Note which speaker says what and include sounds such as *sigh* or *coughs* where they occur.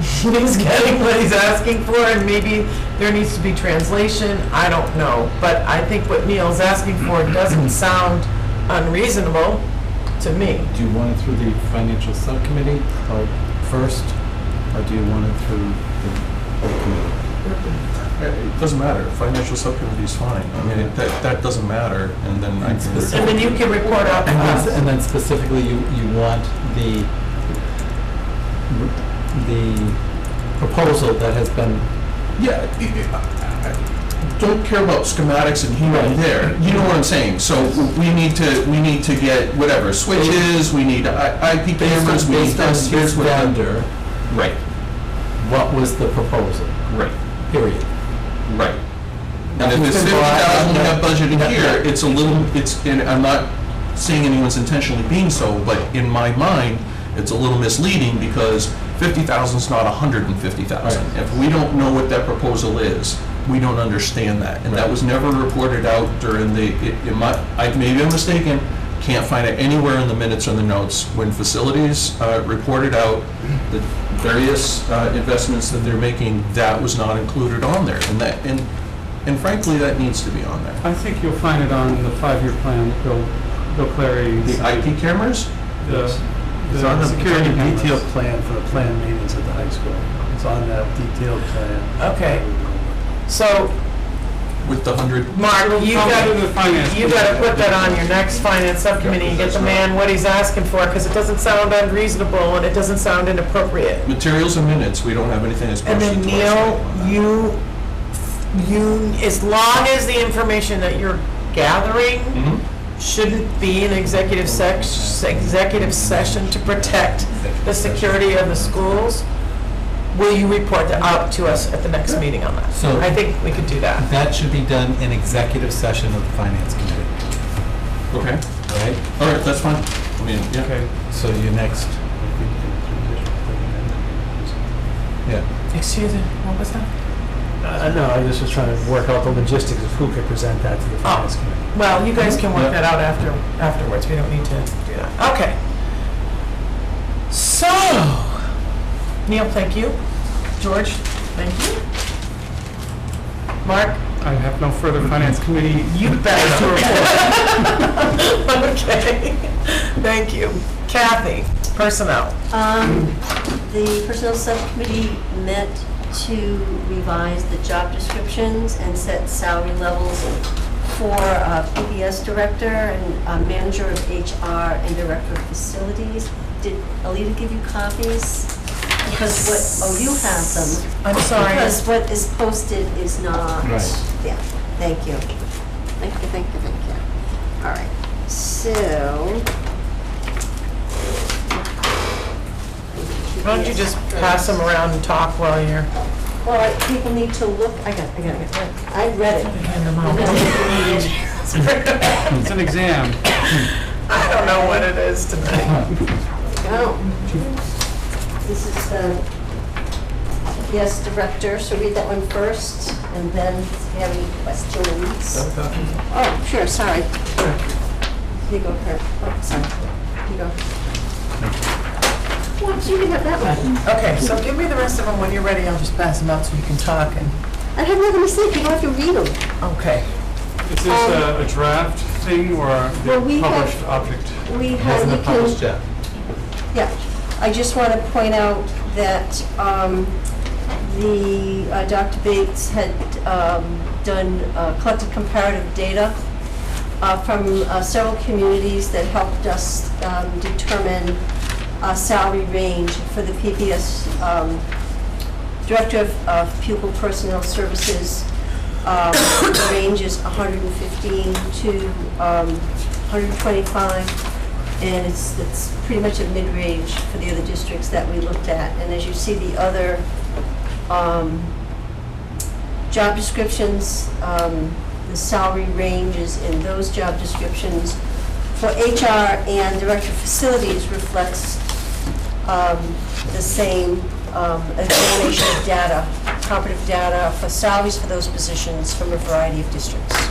Speaker 1: *laughs* he's getting what he's asking for, and maybe there needs to be translation, I don't know. But I think what Neil's asking for doesn't sound unreasonable to me.
Speaker 2: Do you want it through the financial subcommittee or first, or do you want it through the whole committee?
Speaker 3: It doesn't matter, financial subcommittee is fine. I mean, it- that, that doesn't matter, and then I can...
Speaker 1: And then you can report out to
Speaker 2: And then,
Speaker 1: us.
Speaker 2: and then specifically, you, you want the, the proposal that has been,
Speaker 3: Yeah, i- i- I don't care about schematics and here and there, you know what I'm saying? So we need to, we need to get whatever, switches, we need I-
Speaker 2: based
Speaker 3: IP cameras,
Speaker 2: on,
Speaker 3: we need
Speaker 2: based on
Speaker 3: this,
Speaker 2: his
Speaker 3: here's what...
Speaker 2: vendor,
Speaker 3: Right,
Speaker 2: what was the proposal,
Speaker 3: right,
Speaker 2: period.
Speaker 3: right. And if
Speaker 2: Nothing's
Speaker 3: it's
Speaker 2: been
Speaker 3: fifty
Speaker 2: brought up,
Speaker 3: thousand, we
Speaker 2: no-
Speaker 3: have budgeted
Speaker 2: no-
Speaker 3: here, it's a little, it's, and I'm not saying anyone's intentionally being so, but in my mind, it's a little misleading because fifty thousand's not a hundred and fifty thousand.
Speaker 2: Right.
Speaker 3: If we don't know what that proposal is, we don't understand that. And that
Speaker 2: Right.
Speaker 3: was never reported out during the, it, it might, I, maybe I'm mistaken, can't find it anywhere in the minutes or the notes. When facilities, uh, reported out the various, uh, investments that they're making, that was not included on there. And that, and, and frankly, that needs to be on there.
Speaker 4: I think you'll find it on the five-year plan that Bill, Bill Clary,
Speaker 3: The
Speaker 4: the,
Speaker 3: IP cameras?
Speaker 5: It's on
Speaker 4: the
Speaker 5: the, it's on
Speaker 4: security
Speaker 5: the detailed
Speaker 4: cameras.
Speaker 5: plan for the planned maintenance at the high school. It's on that detailed plan.
Speaker 1: Okay. So,
Speaker 3: With the hundred,
Speaker 1: Mark, you
Speaker 4: I'll
Speaker 1: got
Speaker 4: go to the finance.
Speaker 1: You gotta put that on your next finance subcommittee and get the man what he's asking for, because it doesn't sound unreasonable and it doesn't sound inappropriate.
Speaker 3: materials and minutes, we don't have anything that's
Speaker 1: And
Speaker 3: posted
Speaker 1: then
Speaker 3: to us.
Speaker 1: Neil, you, you, as long as the information that you're gathering
Speaker 3: Mhm.
Speaker 1: shouldn't be an executive sex, executive session to protect the security of the schools, will you report that out to us at the next meeting on that?
Speaker 2: So-
Speaker 1: I think we could do that.
Speaker 2: That should be done in executive session of the finance committee,
Speaker 3: Okay,
Speaker 2: right?
Speaker 3: all right, that's fine. I mean, yeah.
Speaker 4: Okay,
Speaker 2: So your next, yeah.
Speaker 1: Excuse me, what was that?
Speaker 5: Uh, no, I just was trying to work out the logistics of who could present that to the finance committee.
Speaker 1: Well, you guys can work
Speaker 2: Yeah.
Speaker 1: that out after, afterwards, we don't need to do that. Okay. So, Neil, thank you. George, thank you. Mark?
Speaker 4: I have no further finance committee.
Speaker 1: You *laughs* better. Okay, thank you. Kathy, personnel.
Speaker 6: Um, The personnel subcommittee met to revise the job descriptions and set salary levels for uh, PBS director and uh, manager of HR and director of facilities. Did Alita give you copies? Because what, oh, you have them.
Speaker 1: I'm sorry.
Speaker 6: Because what is posted is not.
Speaker 2: Right.
Speaker 6: Yeah, thank you. Thank you, thank you, thank you. All right, so.
Speaker 1: Why don't you just pass them around and talk while you're
Speaker 6: Well, I- people need to look, I got, I got, I got, I read it.
Speaker 1: handing them out?
Speaker 4: It's an exam.
Speaker 1: *laughs* I don't know what it is tonight.
Speaker 6: Go. This is the, yes, director, so read that one first, and then if you have any questions. Oh, sure, sorry. Here you go, Kurt. Oh, sorry. Here you go. Well, you can have that one.
Speaker 1: Okay, so give me the rest of them when you're ready, I'll just pass them out so you can talk and,
Speaker 6: I have nothing to say, you don't have to read them.
Speaker 1: okay.
Speaker 4: Is this a a draft thing or
Speaker 6: Well, we
Speaker 4: the
Speaker 6: have-
Speaker 4: published object?
Speaker 6: We
Speaker 2: It
Speaker 6: have,
Speaker 2: hasn't
Speaker 6: you
Speaker 2: been published
Speaker 6: can,
Speaker 2: yet.
Speaker 6: yeah, I just want to point out that um, the, uh, Dr. Bates had um, done, uh, collected comparative data uh, from uh, several communities that helped us um, determine uh, salary range for the PBS um, Director of- of Pupil Personnel Services, um, *coughs* the range is 115 to um, 125, and it's, it's pretty much a mid-range for the other districts that we looked at. And as you see, the other um, job descriptions, um, the salary ranges in those job descriptions for HR and Director of Facilities reflects um, the same um, examination of data, comparative data for salaries for those positions from a variety of districts.